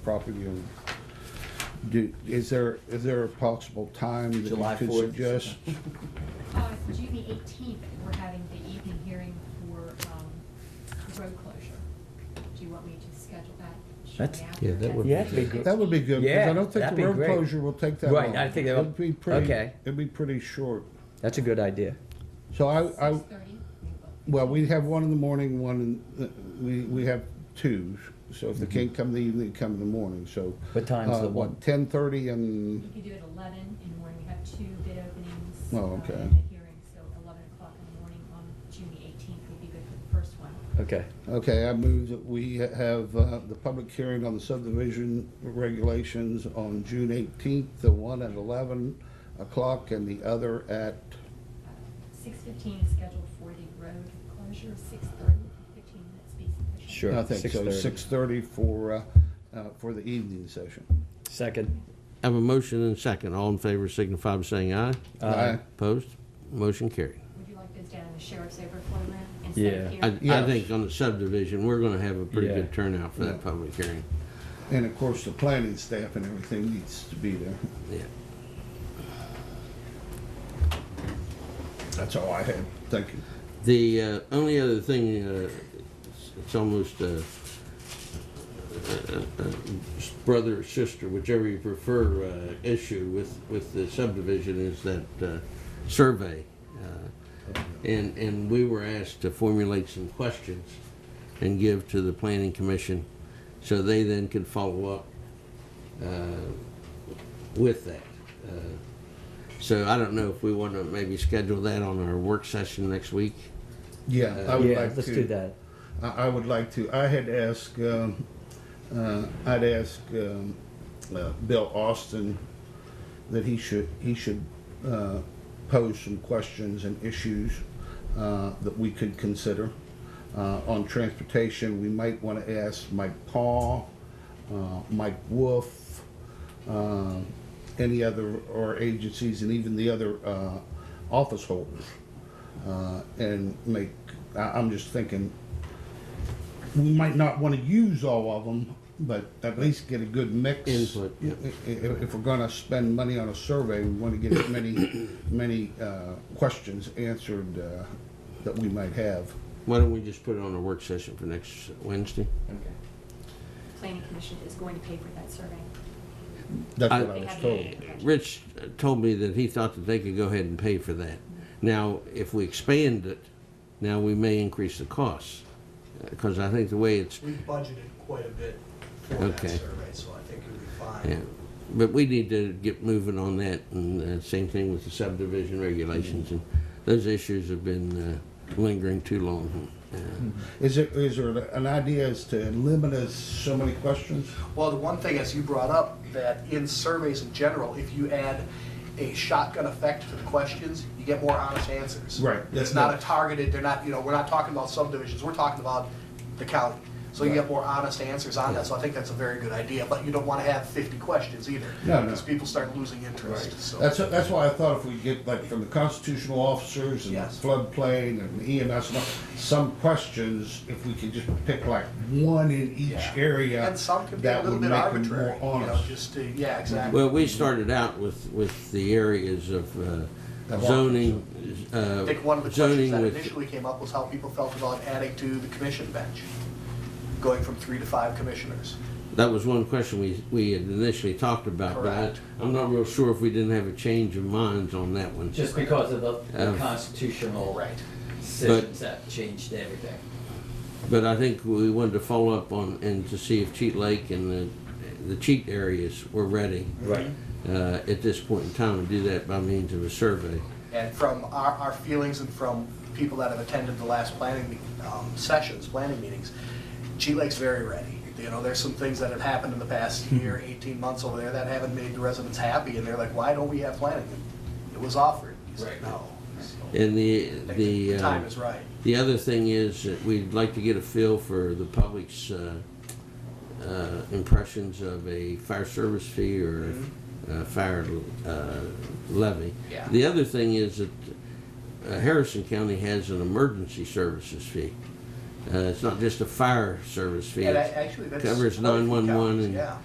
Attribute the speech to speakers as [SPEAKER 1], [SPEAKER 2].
[SPEAKER 1] property owner. Do, is there, is there a possible time that
[SPEAKER 2] July
[SPEAKER 1] you could
[SPEAKER 2] 4th.
[SPEAKER 1] suggest?
[SPEAKER 3] Uh, June the eighteenth, we're having the evening hearing for, um, road closure. Do you want me to schedule that shortly
[SPEAKER 2] That's-
[SPEAKER 3] after?
[SPEAKER 4] Yeah, that would
[SPEAKER 3] That's
[SPEAKER 4] be
[SPEAKER 3] the
[SPEAKER 4] good.
[SPEAKER 1] That would be good, because
[SPEAKER 2] Yeah,
[SPEAKER 1] I don't think
[SPEAKER 2] that'd
[SPEAKER 1] the
[SPEAKER 2] be
[SPEAKER 1] road
[SPEAKER 2] great.
[SPEAKER 1] closure will take that long.
[SPEAKER 2] Right, I think that'll-
[SPEAKER 1] It'd be pretty,
[SPEAKER 2] okay.
[SPEAKER 1] it'd be pretty short.
[SPEAKER 2] That's a good idea.
[SPEAKER 1] So I, I,
[SPEAKER 3] 6:30.
[SPEAKER 1] well, we have one in the morning, one in, the- we, we have two. So if they can't come in the evening, come in the morning, so.
[SPEAKER 2] What time's
[SPEAKER 1] uh,
[SPEAKER 2] the
[SPEAKER 1] what,
[SPEAKER 2] one?
[SPEAKER 1] Ten thirty and,
[SPEAKER 3] You could do it eleven in the morning, we have two bid openings.
[SPEAKER 1] Oh,
[SPEAKER 3] uh,
[SPEAKER 1] okay.
[SPEAKER 3] And a hearing, so eleven o'clock in the morning on June the eighteenth would be good for the first one.
[SPEAKER 2] Okay.
[SPEAKER 1] okay, I move that we have, uh, the public hearing on the subdivision regulations on June eighteenth, the one at eleven o'clock and the other at,
[SPEAKER 3] Uh, Six fifteen is scheduled for the road closure, six thirty, fifteen minutes be sufficient.
[SPEAKER 2] Sure.
[SPEAKER 1] I think so,
[SPEAKER 2] 6:30.
[SPEAKER 1] six thirty for, uh, uh, for the evening session.
[SPEAKER 2] Second.
[SPEAKER 4] Have a motion and a second. All in favor signify by saying aye.
[SPEAKER 1] Aye.
[SPEAKER 4] Opposed? Motion carried.
[SPEAKER 3] Would you like those down in the sheriff's overflow room instead
[SPEAKER 2] Yeah.
[SPEAKER 3] of here?
[SPEAKER 4] I, I
[SPEAKER 1] Yes.
[SPEAKER 4] think on the subdivision, we're gonna have a pretty
[SPEAKER 2] Yeah.
[SPEAKER 4] good turnout for that
[SPEAKER 1] Yeah.
[SPEAKER 4] public hearing.
[SPEAKER 1] And of course, the planning staff and everything needs to be there.
[SPEAKER 4] Yeah.
[SPEAKER 1] That's all I have. Thank you.
[SPEAKER 4] The uh, only other thing, uh, it's- it's almost uh, a brother or sister, whichever you prefer, uh, issue with, with the subdivision is that uh, survey. Uh, And, and we were asked to formulate some questions and give to the planning commission so they then can follow up uh, with that. Uh, So I don't know if we want to maybe schedule that on our work session next week.
[SPEAKER 1] Yeah, I would
[SPEAKER 2] yeah,
[SPEAKER 1] like
[SPEAKER 2] let's
[SPEAKER 1] to.
[SPEAKER 2] do that.
[SPEAKER 1] I, I would like to. I had asked. Um, uh, I'd asked um, uh, Bill Austin that he should he should uh, pose some questions and issues uh, that we could consider uh, on transportation. We might want to ask Mike Paul, uh, Mike Wolf, uh, any other or agencies, and even the other uh, office holders, uh, and make. I, I'm just thinking we might not want to use all of them, but at least get a good mix.
[SPEAKER 4] Input, yeah.
[SPEAKER 1] I- i- If, we're gonna spend money on a survey, we want to get as many, many uh, questions answered uh, that we might have.
[SPEAKER 4] Why don't we just put it on a work session for next Wednesday?
[SPEAKER 3] Planning Commission is going to pay for that survey.
[SPEAKER 1] That's
[SPEAKER 4] I-
[SPEAKER 1] what I was told.
[SPEAKER 4] Rich told me that he thought that they could go ahead and pay for that. Now, if we expand it, now we may increase the costs, because I think the way it's,
[SPEAKER 5] We budgeted quite a bit for that
[SPEAKER 4] Okay.
[SPEAKER 5] survey, so I think it'll be
[SPEAKER 4] yeah.
[SPEAKER 5] fine.
[SPEAKER 4] But we need to get moving on that, and uh, same thing with the subdivision regulations, and those issues have been uh, lingering too long. Uh,
[SPEAKER 1] Is there, is there an idea as to limit us so many questions?
[SPEAKER 5] Well, the one thing, as you brought up, that in surveys in general, if you add a shotgun effect to the questions, you get more honest answers.
[SPEAKER 1] Right.
[SPEAKER 5] It's not a targeted, they're not, you know, we're not talking about subdivisions, we're talking about the county. So you get more honest answers on that, so I think that's a very good idea, but you don't want to have fifty questions either.
[SPEAKER 1] No, no.
[SPEAKER 5] Because people start losing interest, so.
[SPEAKER 1] That's, that's why I thought if we get like from the constitutional officers and
[SPEAKER 5] Yes.
[SPEAKER 1] floodplain and EMS, and all, some questions, if we could just pick like one in each
[SPEAKER 5] Yeah.
[SPEAKER 1] area.
[SPEAKER 5] And some can be a
[SPEAKER 1] that
[SPEAKER 5] little
[SPEAKER 1] would
[SPEAKER 5] bit
[SPEAKER 1] make 'em
[SPEAKER 5] arbitrary, you
[SPEAKER 1] More
[SPEAKER 5] know,
[SPEAKER 1] honest.
[SPEAKER 5] just to, yeah, exactly.
[SPEAKER 4] Well, we started out with, with the areas of uh,
[SPEAKER 1] The walk-
[SPEAKER 4] zoning, uh,
[SPEAKER 5] I think one of the questions
[SPEAKER 4] zoning
[SPEAKER 5] that
[SPEAKER 4] with,
[SPEAKER 5] initially came up was how people felt about adding to the commission bench, going from three to five commissioners.
[SPEAKER 4] That was one question we, we had initially talked about, but I,
[SPEAKER 5] Correct.
[SPEAKER 4] I'm not real sure if we didn't have a change of minds on that one.
[SPEAKER 6] Just because of the the
[SPEAKER 4] Um,
[SPEAKER 6] constitutional
[SPEAKER 5] Right.
[SPEAKER 6] decisions that changed everything.
[SPEAKER 4] But I think we wanted to follow up on, and to see if Cheat Lake and the, the cheat areas were ready.
[SPEAKER 6] Right.
[SPEAKER 4] Uh, at this point in time, and do that by means of a survey.
[SPEAKER 5] And from our, our feelings and from people that have attended the last planning me- um, sessions, planning meetings, G Lake's very ready. You know, there's some things that have happened in the past
[SPEAKER 4] Hmm.
[SPEAKER 5] year, 18 months over there that haven't made the residents happy, and they're like, why don't we have planning? And It was offered. He said,
[SPEAKER 6] Right.
[SPEAKER 5] No. So,
[SPEAKER 4] And the,
[SPEAKER 5] I think
[SPEAKER 4] the.
[SPEAKER 5] The time
[SPEAKER 4] uh,
[SPEAKER 5] is right.
[SPEAKER 4] The other thing is that we'd like to get a feel for the public's uh, uh, impressions of a fire service fee or a fire uh, levy.
[SPEAKER 5] Yeah.
[SPEAKER 4] The other thing is that uh, Harrison County has an emergency services fee. Uh, It's not just a fire service fee.
[SPEAKER 5] And I-
[SPEAKER 4] it's-
[SPEAKER 5] actually, that's.
[SPEAKER 4] covers
[SPEAKER 5] quite a few
[SPEAKER 4] 911
[SPEAKER 5] counties,
[SPEAKER 4] and-
[SPEAKER 5] Yeah.